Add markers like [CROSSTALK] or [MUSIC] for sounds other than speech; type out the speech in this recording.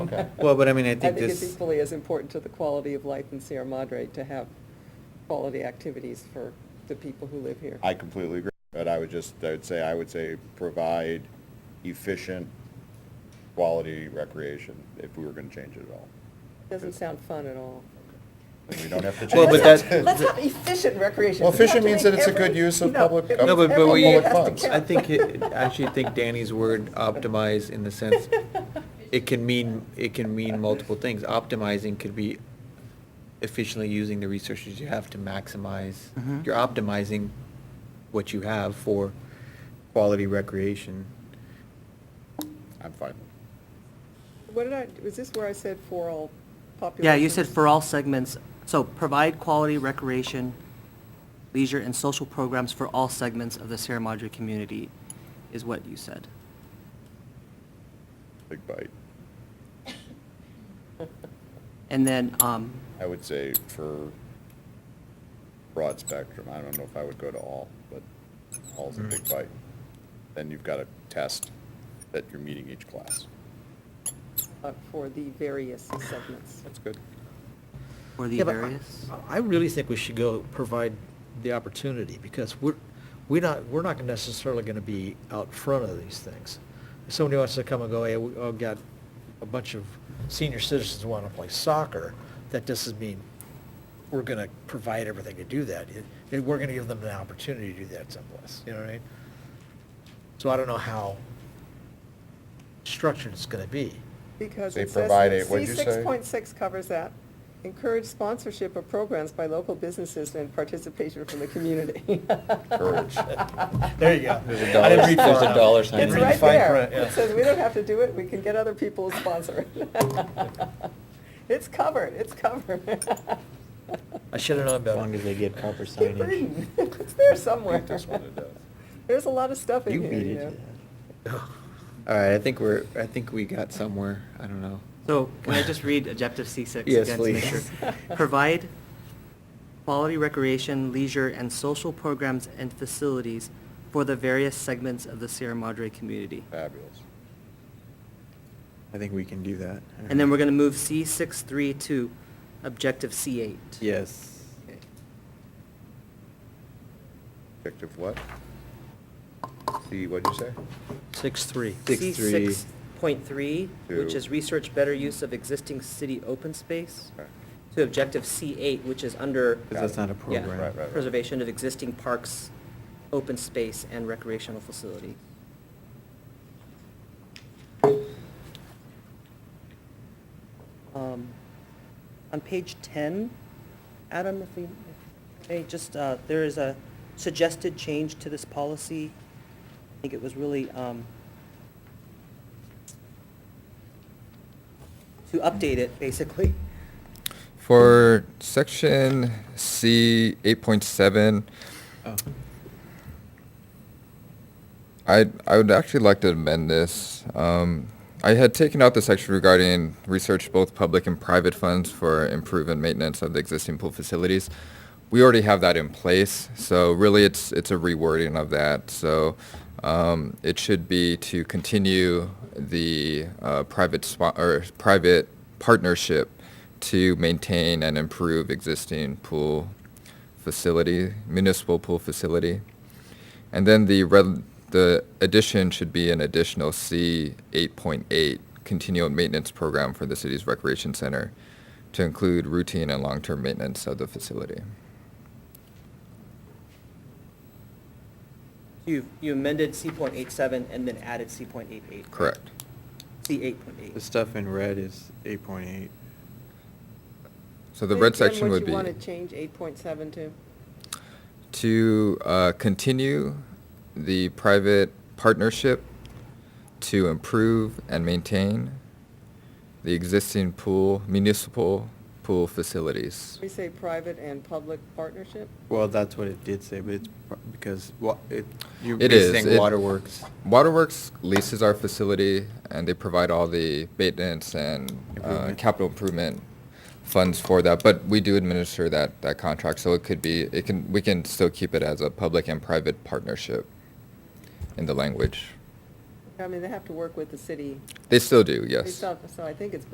Okay. Well, but I mean, I think I think this- it's equally as important to the quality of life in Sierra Madre to have quality activities for the people who live here. I completely agree, but I would just, I would say, I would say provide efficient, quality recreation if we were going to change it at all. Doesn't sound fun at all. And We don't have to Well, change but it. Let's [LAUGHS] that- have- Let's have efficient recreation. Well, We have efficient to means make that it's a every- good use of you know, public- every- No, but, but every we, minute public has to funds. I count. think, it- I actually think Danny's word optimize in the sense, it can mean, it can mean multiple things. Optimizing could be efficiently using the resources you have to maximize. Mhm. You're optimizing what you have for quality recreation. I'm fine. What did I, was this where I said for all populations? Yeah, you said for all segments, so provide quality recreation, leisure, and social programs for all segments of the Sierra Madre community is what you said. Big bite. And then, um, I would say for broad spectrum, I don't know if I would go to all, but all's a big bite. Then you've got to test that you're meeting each class. Uh, For the various segments. That's good. for the Yeah, but I- various, I really think we should go provide the opportunity, because we're, we're not, we're not necessarily gonna be out front of these things. If somebody wants to come and go, hey, we- I've got a bunch of senior citizens wanna play soccer, that doesn't mean we're gonna provide everything to do that. It- it- We're gonna give them an opportunity to do that someplace, you know what I mean? So I don't know how structured it's gonna be. Because They it provide says, it, what'd C you six say? point six covers that. Encourage sponsorship of programs by local businesses and participation from the community. [LAUGHS] Courage. There you go. There's a I didn't dollar- read far there's a enough. dollar sign. Didn't It's read the right fine there. print, yeah. It says, we don't have to do it, we can get other people to sponsor it. [LAUGHS] It's covered, it's covered. I should have known As better. long as they get proper Keep signage. reading, it's there I [LAUGHS] somewhere. think that's what it [LAUGHS] does. There's a lot of stuff in You here, beat you it to know. that. All right, I think we're, I think we got somewhere, I don't know. so can I just read objective C six Yes, again to make sure? please. [LAUGHS] Provide quality recreation, leisure, and social programs and facilities for the various segments of the Sierra Madre community. Fabulous. I think we can do that. And then we're gonna move C six three to objective C eight. Yes. Objective what? C, what'd you say? Six, three. Six, C three. six point three, which Two. is research better use of existing city open space, Okay. to objective C eight, which is under. 'Cause that's not a yeah, program. Right, right, right. Preservation of existing parks, open space, and recreational facility. Um, On page 10, Adam, if we, hey, just, uh, there is a suggested change to this policy. I think it was really um, to update it, basically. For section C eight point seven, Oh. I I would actually like to amend this. Um, I had taken out the section regarding research both public and private funds for improvement maintenance of the existing pool facilities. We already have that in place, so really it's it's a rewording of that. So um, it should be to continue the uh, private spo- or private partnership to maintain and improve existing pool facility, municipal pool facility. And then the red, the addition should be an additional C eight point eight, continual maintenance program for the city's recreation center to include routine and long-term maintenance of the facility. You you amended C.87 and then added C.88. Correct. C8.8. The stuff in red is eight point eight. So the Say red again section would be What you want to change eight point seven to? to uh, continue the private partnership to improve and maintain the existing pool, municipal pool facilities. We say private and public partnership? Well, that's what it did say, but it's pro- because wa- it, you're It is. basing It- waterworks. Waterworks leases our facility, and they provide all the maintenance and uh, Improvement. capital improvement funds for that. But we do administer that, that contract, so it could be, it can, we can still keep it as a public and private partnership in the language. I mean, they have to work with the city. They still do, They yes. still- So I think it's